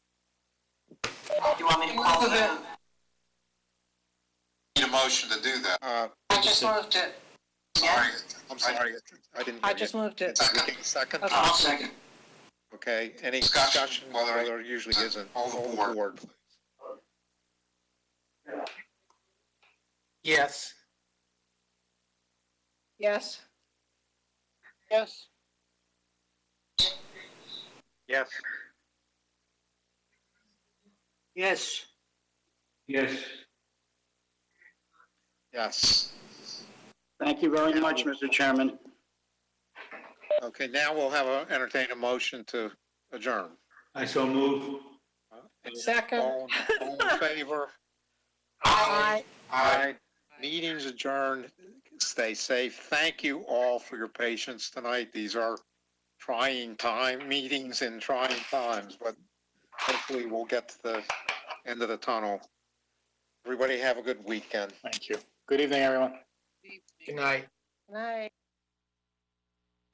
you want me to call it in? Need a motion to do that. Uh, I just moved it. Sorry, I'm I'm sorry, I didn't I hear just you. moved it. Second, second, Okay. I'll second. okay, any Discussion, discussion, well, whether- there usually isn't, all All the the board. board, please. Yes. Yes? Yes. Yes. Yes. Yes. yes. Thank you very much, Mr. Chairman. Okay, now we'll have a, entertain a motion to adjourn. I so move. Second. All, all in favor? Aye. Aye. Meeting's adjourned. Stay safe. Thank you all for your patience tonight. These are trying time, meetings in trying times, but hopefully we'll get to the end of the tunnel. Everybody have a good weekend. Thank you. Good evening, everyone. Good night. Night.